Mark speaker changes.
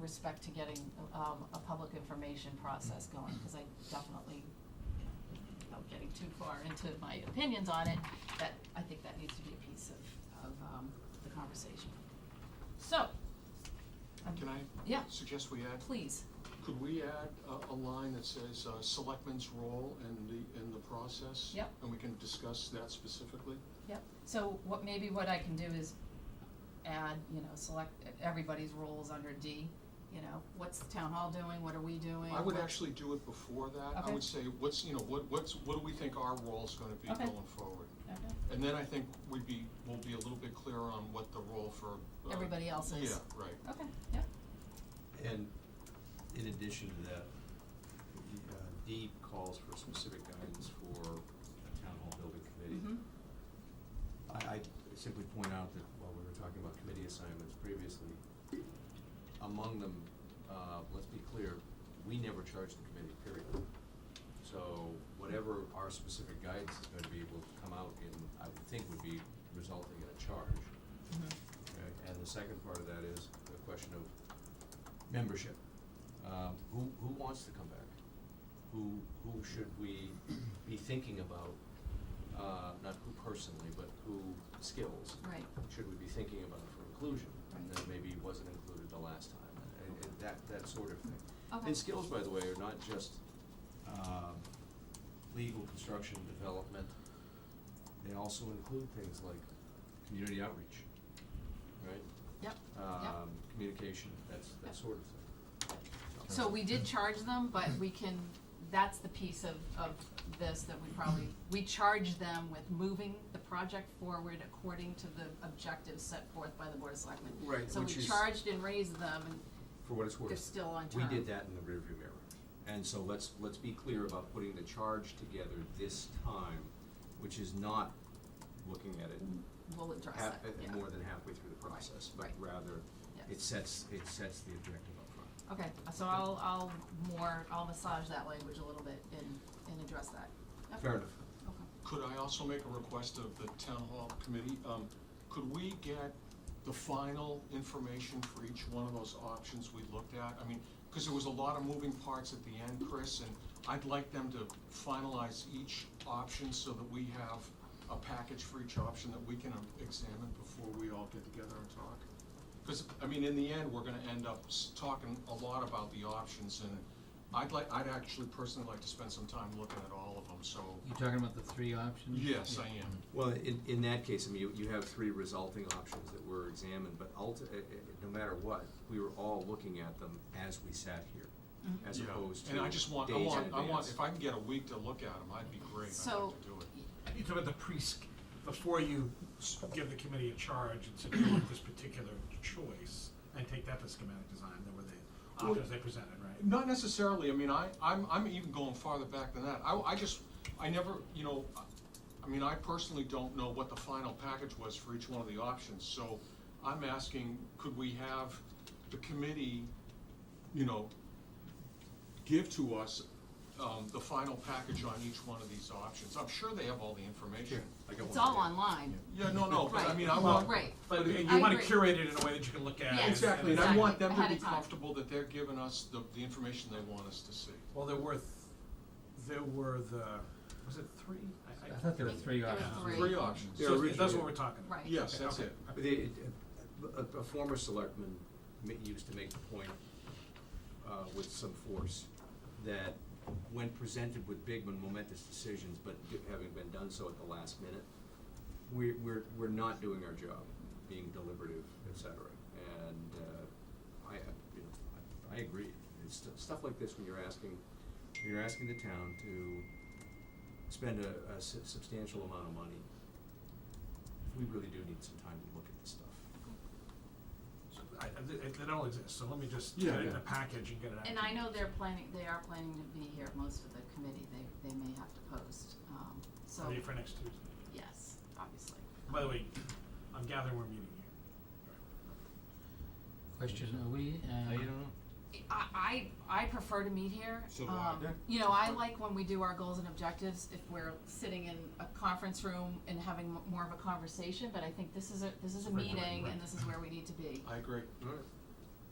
Speaker 1: respect to getting, um, a public information process going, cause I definitely, you know, without getting too far into my opinions on it, that, I think that needs to be a piece of, of, um, the conversation. So, um,
Speaker 2: Can I?
Speaker 1: Yeah.
Speaker 2: Suggest we add,
Speaker 1: please,
Speaker 2: could we add a, a line that says, uh, selectmen's role in the, in the process?
Speaker 1: Yep.
Speaker 2: And we can discuss that specifically?
Speaker 1: Yep, so what, maybe what I can do is add, you know, select everybody's roles under D, you know, what's the town hall doing, what are we doing?
Speaker 2: I would
Speaker 1: what-
Speaker 2: actually do it before that. I
Speaker 1: Oh, Okay.
Speaker 2: would say, what's, you know, what, what's, what do we think our role's gonna be
Speaker 1: Okay.
Speaker 2: going forward?
Speaker 1: Okay.
Speaker 2: And then I think we'd be, we'll be a little bit clearer on what the role for. uh,
Speaker 1: Everybody else is.
Speaker 2: Yeah, right.
Speaker 1: Okay, yeah,
Speaker 3: And in addition to that, the, uh, D calls for specific guidance for a town hall building committee.
Speaker 1: mhm,
Speaker 3: I, I simply point out that while we were talking about committee assignments previously, among them, uh, let's be clear, we never charge the committee, period. So whatever our specific guidance is gonna be will come out in, I would think would be resulting in a charge.
Speaker 1: mhm,
Speaker 3: Okay, Uh, and the second part of that is the question of membership. Um, who, who wants to come back? Who, who should we be thinking about, uh, not who personally, but who skills
Speaker 1: right,
Speaker 3: should we be thinking about for inclusion? And
Speaker 1: Right.
Speaker 3: then maybe wasn't included the last time, and, and that, that sort of thing.
Speaker 1: okay.
Speaker 3: And skills, by the way, are not just, um, legal, construction, development. They also include things like community outreach, right?
Speaker 1: Yep, yep.
Speaker 3: Um, communication, that's,
Speaker 1: Yep.
Speaker 3: that sort of thing.
Speaker 1: So we did charge them, but we can, that's the piece of, of this that we probably, we charge them with moving the project forward according to the objectives set forth by the Board of Selectmen.
Speaker 3: Right,
Speaker 1: So we
Speaker 3: which is-
Speaker 1: charged and raised them, and
Speaker 3: For what it's worth.
Speaker 1: they're still on
Speaker 3: We
Speaker 1: term.
Speaker 3: did that in the rearview mirror. And so let's, let's be clear about putting the charge together this time, which is not looking at it
Speaker 1: We'll address
Speaker 3: half,
Speaker 1: that, yeah.
Speaker 3: at- more than halfway through the process, but
Speaker 1: right.
Speaker 3: rather,
Speaker 1: Yes.
Speaker 3: it sets, it sets the objective up front.
Speaker 1: Okay, so I'll, I'll more, I'll massage that language a little bit and, and address that. Yep.
Speaker 3: Fair enough.
Speaker 1: Okay.
Speaker 2: Could I also make a request of the town hall committee? Um, could we get the final information for each one of those options we looked at? I mean, because there was a lot of moving parts at the end, Chris, and I'd like them to finalize each option so that we have a package for each option that we can um, examine before we all get together and talk. Because, I mean, in the end, we're gonna end up s- talking a lot about the options, and I'd like, I'd actually personally like to spend some time looking at all of them, so
Speaker 4: You talking about the three options?
Speaker 2: Yes, I am.
Speaker 3: Well, in, in that case, I mean, you, you have three resulting options that were examined, but ulti- eh, eh, no matter what, we were all looking at them as we sat here, as
Speaker 1: Mm-hmm.
Speaker 2: Yeah.
Speaker 3: opposed to
Speaker 2: And I just want, I
Speaker 3: days in
Speaker 2: want, I want,
Speaker 3: advance.
Speaker 2: if I can get a week to look at them, I'd be great, I'd
Speaker 1: So-
Speaker 2: like to do it.
Speaker 5: You talk about the pre, before you s- give the committee a charge and say, "You want this particular choice, and take that to schematic design, there were the
Speaker 2: Well-
Speaker 5: options they presented, right?
Speaker 2: Not necessarily, I mean, I, I'm, I'm even going farther back than that, I, I just, I never, you know, I- I mean, I personally don't know what the final package was for each one of the options, so I'm asking, could we have the committee, you know, give to us, um, the final package on each one of these options? I'm sure they have all the information.
Speaker 3: I got
Speaker 1: It's
Speaker 3: one
Speaker 1: all
Speaker 3: idea.
Speaker 1: online,
Speaker 2: Yeah, no,
Speaker 3: Oh,
Speaker 2: no, but I
Speaker 1: Right.
Speaker 2: mean, I want,
Speaker 1: right,
Speaker 5: But
Speaker 1: I
Speaker 5: you wanna
Speaker 1: agree.
Speaker 5: curate it in a way that you can look at.
Speaker 1: Yeah,
Speaker 5: and-
Speaker 2: Exactly, and I
Speaker 1: Exactly,
Speaker 2: want them to
Speaker 1: ahead
Speaker 2: be
Speaker 1: of time.
Speaker 2: comfortable that they're giving us the, the information they want us to see.
Speaker 5: Well, there were, th- there were the, was it three?
Speaker 4: I thought there were three
Speaker 1: There were
Speaker 4: options.
Speaker 1: Three.
Speaker 2: Three options.
Speaker 3: Yeah,
Speaker 5: So
Speaker 3: originally-
Speaker 5: that's what we're talking about.
Speaker 1: right.
Speaker 2: Yes,
Speaker 5: Okay,
Speaker 2: that's
Speaker 5: okay.
Speaker 2: it.
Speaker 3: But they- a, a former selectman ma- used to make the point, uh, with some force, that when presented with big and momentous decisions, but d- having been done so at the last minute, we, we're, we're not doing our job, being deliberative, et cetera. And, uh, I, I- you know, I, I agree. It's stu- stuff like this, when you're asking, when you're asking the town to spend a, a su- substantial amount of money, we really do need some time to look at this stuff.
Speaker 5: So I, I- it, it all exists, so let me just
Speaker 2: Yeah,
Speaker 5: get it in
Speaker 2: yeah.
Speaker 5: a package and get it out.
Speaker 1: And I know they're planning, they are planning to be here, most of the committee, they, they may have to post, um, so,
Speaker 5: Ready for next Tuesday.
Speaker 1: yes, obviously.
Speaker 5: By the way, I'm gathering we're meeting here.
Speaker 4: Question, are we, uh?
Speaker 1: I, I, I prefer to meet here.
Speaker 2: So do I.
Speaker 1: um,
Speaker 2: Yeah.
Speaker 1: you know, I like when we do our goals and objectives, if we're sitting in a conference room and having m- more of a conversation, but I think this is a, this is a
Speaker 5: Right, right,
Speaker 1: meeting
Speaker 5: right.
Speaker 1: and this is where we need to be.
Speaker 2: I agree.
Speaker 3: All right.